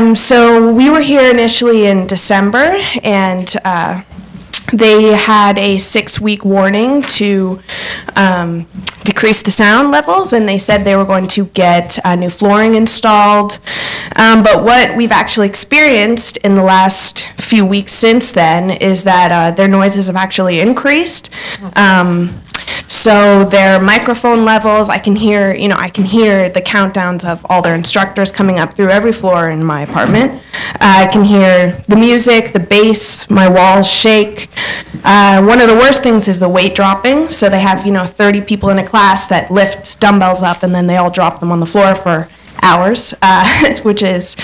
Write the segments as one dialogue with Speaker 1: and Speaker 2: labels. Speaker 1: Um, so we were here initially in December, and uh, they had a six-week warning to um, decrease the sound levels, and they said they were going to get uh, new flooring installed. Um, but what we've actually experienced in the last few weeks since then is that uh, their noises have actually increased. Um, so their microphone levels, I can hear, you know, I can hear the countdowns of all their instructors coming up through every floor in my apartment. Uh, I can hear the music, the bass, my walls shake. Uh, one of the worst things is the weight dropping. So they have, you know, 30 people in a class that lift dumbbells up and then they all drop them on the floor for hours, uh, which is,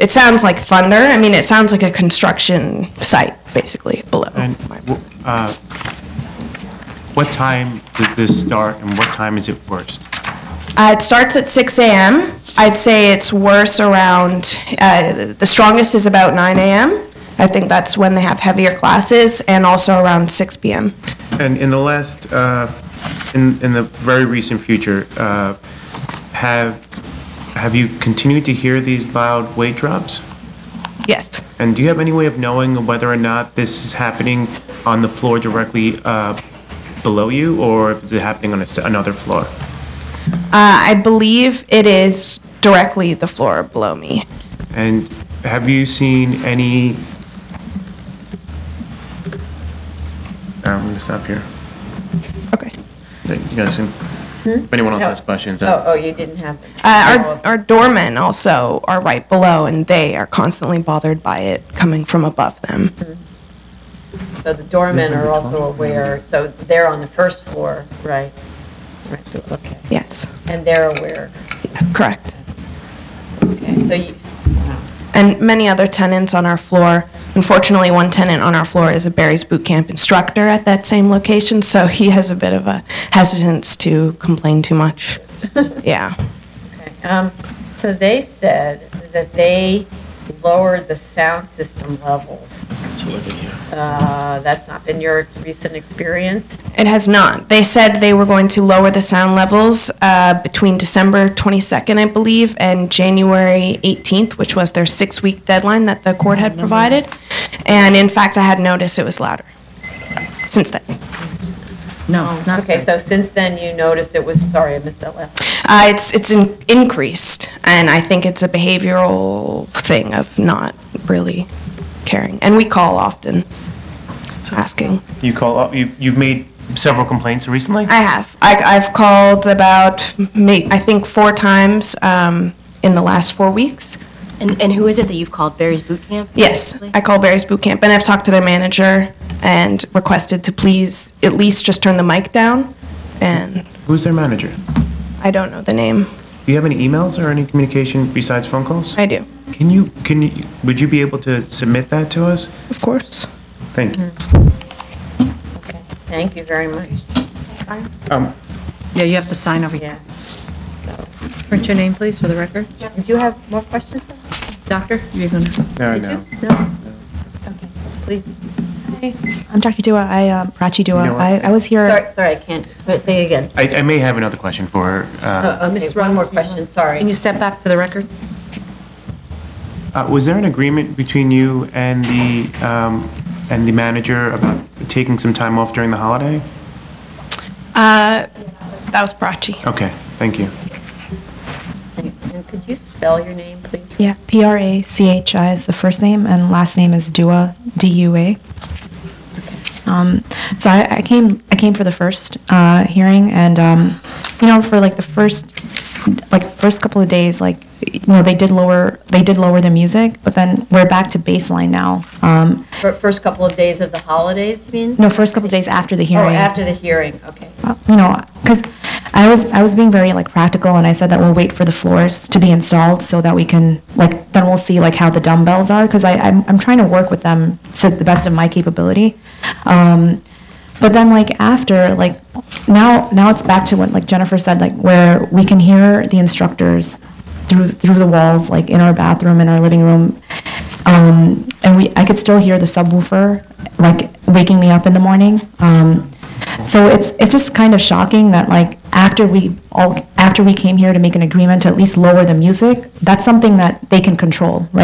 Speaker 1: it sounds like thunder. I mean, it sounds like a construction site, basically, below.
Speaker 2: And wh- uh, what time does this start and what time is it worst?
Speaker 1: Uh, it starts at 6 a.m. I'd say it's worse around, uh, the strongest is about 9 a.m. I think that's when they have heavier classes, and also around 6 p.m.
Speaker 2: And in the last, uh, in in the very recent future, uh, have have you continued to hear these loud weight drops?
Speaker 1: Yes.
Speaker 2: And do you have any way of knowing whether or not this is happening on the floor directly uh, below you, or is it happening on a s- another floor?
Speaker 1: Uh, I believe it is directly the floor below me.
Speaker 2: And have you seen any? I'm gonna stop here.
Speaker 1: Okay.
Speaker 2: You guys can, if anyone else has questions,
Speaker 3: Oh,
Speaker 2: uh,
Speaker 3: oh, you didn't have. Oh,
Speaker 1: Uh, our, our doormen also are right below, and they are constantly bothered by it coming from above them.
Speaker 3: So the doormen are also aware, so they're on the first floor, right? Right, okay.
Speaker 1: Yes,
Speaker 3: And they're aware,
Speaker 1: correct.
Speaker 3: okay, so you,
Speaker 1: and many other tenants on our floor. Unfortunately, one tenant on our floor is a Barry's Boot Camp instructor at that same location, so he has a bit of a hesitance to complain too much. yeah.
Speaker 3: okay. Um, So they said that they lowered the sound system levels. Uh, That's not been your ex- recent experience?
Speaker 1: It has not. They said they were going to lower the sound levels uh, between December 22nd, I believe, and January 18th, which was their six week deadline that the court had provided. And in fact, I had noticed it was louder since then.
Speaker 4: No, it's not.
Speaker 3: Okay, so
Speaker 4: fixed.
Speaker 3: since then you noticed it was, sorry, I missed that last.
Speaker 1: Uh, it's it's in, increased, and I think it's a behavioral thing of not really caring. And we call often, asking.
Speaker 2: you call, up- you- you've made several complaints recently?
Speaker 1: oh. I have. I, I've called about ma- I think four times um, in the last four weeks.
Speaker 4: And, and who is it that you've called Barry's Boot Camp?
Speaker 1: Yes,
Speaker 4: basically?
Speaker 1: I call Barry's Boot Camp, and I've talked to their manager and requested to please at least just turn the mic down. And
Speaker 2: Who's their manager?
Speaker 1: I don't know the name.
Speaker 2: Do you have any emails or any communication besides phone calls?
Speaker 1: I do,
Speaker 2: Can you, can you, would you be able to submit that to us?
Speaker 1: of course.
Speaker 2: Thank you.
Speaker 3: Okay, Thank you very much,
Speaker 2: Um,
Speaker 5: Yeah, you have to sign over here.
Speaker 3: yeah. So,
Speaker 5: Print your name, please, for the record.
Speaker 3: did you have more questions?
Speaker 5: Doctor, you're going to...
Speaker 2: No, no.
Speaker 3: Okay, please.
Speaker 6: I'm Dr. Dua. I um, Prachi Dua.
Speaker 2: You know what?
Speaker 6: I, I was here.
Speaker 3: Sorry, sorry, I can't, so say again.
Speaker 2: I, I may have another question for her.
Speaker 3: Uh,
Speaker 5: Miss
Speaker 3: Okay, one more
Speaker 5: Ramos, you have-
Speaker 3: question, sorry.
Speaker 5: Can you step back to the record?
Speaker 2: Uh, uh, Was there an agreement between you and the, um, and the manager about taking some time off during the holiday?
Speaker 1: Uh, that was Brachi.
Speaker 2: Okay, thank you.
Speaker 3: And could you spell your name, please?
Speaker 6: Yeah, P R A C H I is the first name, and last name is Dua, D U A. Um, so I, I came I came for the first uh, hearing, and um, you know, for like the first like first couple of days, like you know, they did lower they did lower the music, but then we're back to baseline now. Um,
Speaker 3: Fir- First couple of days of the holidays, you mean?
Speaker 6: no, first couple of days after the
Speaker 3: Oh,
Speaker 6: hearing.
Speaker 3: after the hearing, okay.
Speaker 6: Uh, you know, because I was I was being very like practical, and I said that we'll wait for the floors to be installed so that we can like then we'll see like how the dumbbells are because I I'm, I'm trying to work with them to the best of my capability. Um, but then like after like now now it's back to what like Jennifer said like where we can hear the instructors through through the walls like in our bathroom in our living room um, and we I could still hear the subwoofer like waking me up in the morning um, so it's it's just kind of shocking that like after we all after we came here to make an agreement to at least lower the music that's something that they can control right